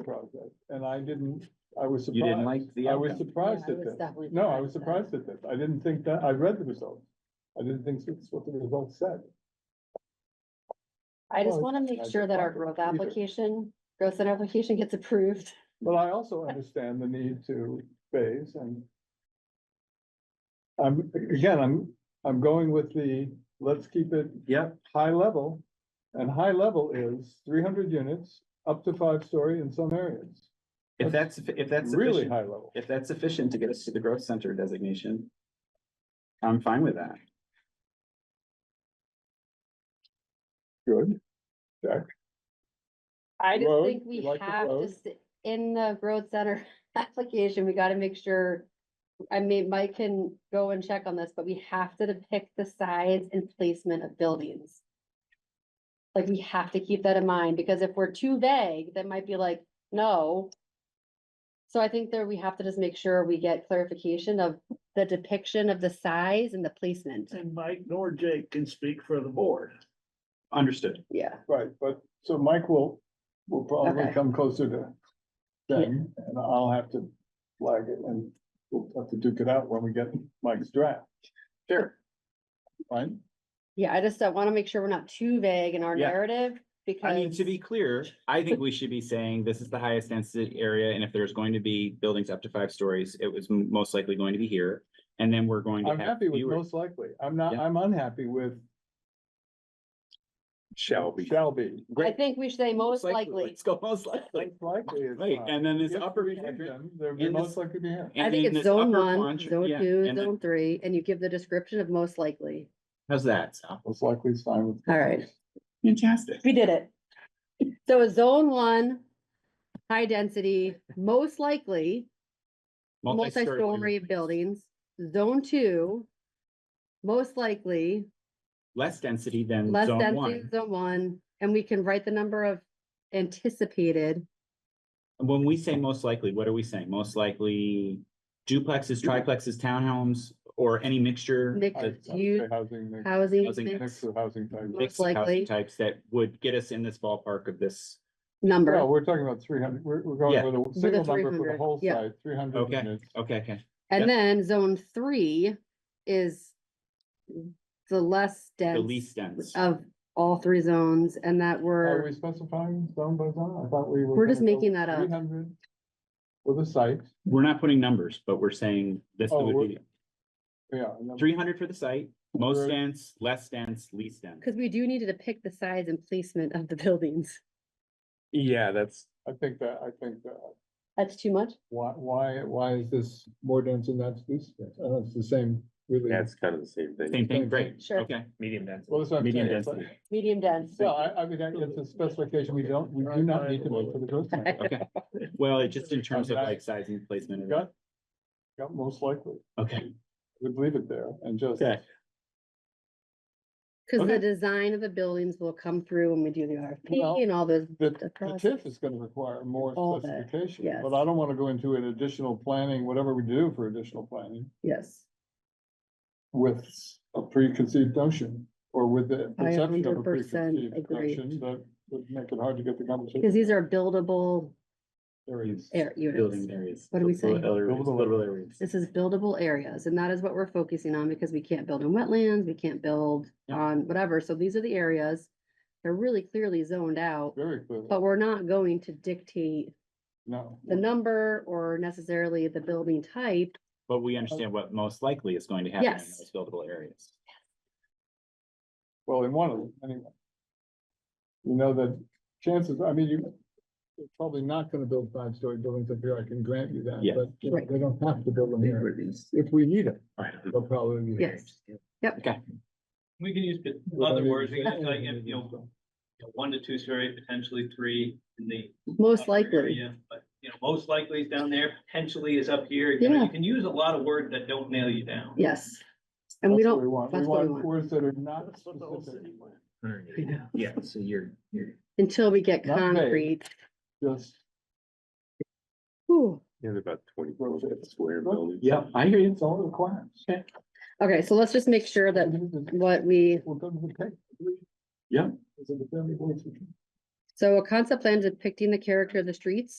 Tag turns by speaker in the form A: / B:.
A: project, and I didn't, I was
B: You
A: surprised.
B: didn't like the
A: I was
B: outcome.
A: surprised
C: Yeah, I
A: at
C: was
A: this.
C: definitely
A: No, I was
C: surprised
A: surprised at this. I didn't think that, I read the results. I didn't think that's what the results said.
C: I just
A: Well,
C: wanna
A: I
C: make sure that our
A: don't
C: growth
A: either.
C: application, growth center application gets approved.
A: But I also understand the need to phase and. I'm, again, I'm, I'm going with the, let's keep it
B: Yep,
A: high level. And high level is three hundred units, up to five story in some areas,
B: if that's, if that's
A: really
B: sufficient,
A: high level.
B: if that's sufficient to get us to the growth center designation. I'm fine with that.
A: Good.
C: I just
A: Road,
C: think
A: you
C: we
A: like the
C: have to,
A: road?
C: s- in the growth center application, we gotta make sure. I mean, Mike can go and check on this, but we have to depict the size and placement of buildings. Like, we have to keep that in mind, because if we're too vague, that might be like, no. So I think there we have to just make sure we get clarification of the depiction of the size and the placement.
D: And Mike nor Jake can speak for the board.
B: Understood.
C: Yeah,
A: Right, but, so Mike will, will probably
C: Okay.
A: come closer to them, and I'll have to flag it, and we'll have to duke it out when we get Mike's draft,
B: Sure.
A: fine?
C: yeah, I just don't wanna make sure we're not too vague in our
B: Yeah.
C: narrative, because.
B: I mean, to be clear, I think we should be saying this is the highest density area, and if there's going to be buildings up to five stories, it was m- most likely going to be here. And then we're going to
A: I'm
B: have
A: happy with
B: fewer.
A: most likely, I'm not,
B: Yeah.
A: I'm unhappy with
B: Shall
A: shall be.
C: I think we should say most likely.
B: Let's go most likely.
A: Most likely is
B: Right,
A: fine.
B: and then this
A: If
B: upper.
A: we
B: quadrant-
A: hit them, They're they're
B: in this-
A: most likely to be here.
B: and
C: I think
B: then
C: it's
B: this
C: zone
B: upper
C: one,
B: quadrant-
C: zone
B: yeah,
C: two,
B: and then-
C: zone three, and you give the description of most likely.
B: How's that? sound?
A: Most likely is fine with.
C: All right.
B: Fantastic.
C: We did it. So a zone one, high density, most likely, multi-story buildings. Zone two, most likely,
B: Less density than
C: less
B: zone
C: density,
B: one.
C: zone one, and we can write the number of anticipated.
B: When we say most likely, what are we saying? Most likely duplexes, triplexes, townhomes, or any mixture? of
C: Mixed
A: I- I would
C: use
A: say Housing, mix-
C: Housing
B: Housing
C: mix
A: mix of housing types.
B: Mixed
C: Most likely.
B: housing types that would get us in this ballpark of this.
C: number.
A: No, we're talking about three hundred, we're, we're
B: Yeah.
A: going with a single number for the
C: 300,
A: whole
C: yeah.
A: site, three hundred
B: Okay.
A: units.
B: Okay, okay. Yeah.
C: And then zone three is the less
B: The
C: dense
B: least dense.
C: of all three zones and that
A: Are we
C: were,
A: specifying zone by zone? I thought we were.
C: We're just making that up.
A: Three hundred for the site,
B: We're not putting numbers, but we're saying this
A: Oh,
B: would be
A: we're- yeah. and then-
B: three hundred for the site, most
A: Right.
B: dense, less dense, least dense.
C: because we do need to depict the size and placement of the buildings.
B: Yeah, that's.
A: I think that, I think that,
C: That's too much?
A: why, why, why is this more dense than that's least dense? I know it's the same, really.
E: Yeah, it's kind of the same thing,
B: Same thing, great.
C: Sure.
B: Okay.
E: medium density.
A: Well, that's what I'm
B: Medium
A: saying. it's
B: density.
A: like-
C: Medium dense.
A: Yeah, I, I mean, that- it's a specification we don't, we do not need to make for the growth. plan.
B: Okay. Well, it just in terms of
A: Okay.
B: like size and placement. of-
A: Got, got most likely,
B: Okay,
A: we'd leave it there and just.
B: okay.
C: Because
B: Okay.
C: the design of the buildings will come through when we do the
A: Well,
C: RFP and all those.
A: The,
C: the
A: the
C: process.
A: TIF is gonna require more
C: All the-
A: specification,
C: yes.
A: but I don't wanna go into an additional planning, whatever we do for additional planning.
C: Yes,
A: With a preconceived notion, or with the
C: I
A: perception of a
C: 100%
A: preconceived
C: agree.
A: notion that would make it hard to get the
C: because
A: conversation.
C: these are buildable
A: areas.
C: air units.
B: Building areas.
C: What do we say?
A: Buildable
B: Buildable areas.
C: This is buildable areas and that is what we're focusing on because we can't build in wetlands, we can't build
B: Yeah.
C: on whatever. So these are the areas. They're really clearly zoned out.
A: Very clearly,
C: But we're not going to dictate
A: no.
C: Oh, the number or necessarily the building type.
B: But we understand what most likely is going to happen in
C: Yes.
B: those buildable areas.
A: Well, in one of them, anyway. You know, the chances, I mean, you, you're probably not gonna build five-story buildings up here, I can grant you that,
B: Yeah.
A: but you know,
C: Right.
A: they don't have to build them here. If we need it, they'll probably be here.
C: Yes. Yep.
B: Okay.
F: We can use pot- other words, we can like, if, you know, one to two story, potentially three in the.
C: Most
F: upper
C: likely.
F: area, But, you know, most likely is down there, potentially is up here, you know,
C: Yeah.
F: you can use a lot of words that don't nail you down.
C: Yes. And we
A: That's what
C: don't,
A: want. We
C: that's what we
A: want
C: want.
A: words that are not
D: That's what the whole
A: specific,
D: city wants.
B: Yeah, so you're, you're.
C: until we get
A: Not vague.
C: concrete.
A: just
C: Whew.
E: There's about twenty-four square buildings.
B: Yeah, I hear you.
A: it's all requirements.
C: Okay, so let's just make sure that what we,
A: We'll go to the tech.
B: Yeah.
A: Is it the family voice?
C: so a concept plan depicting the character of the streets.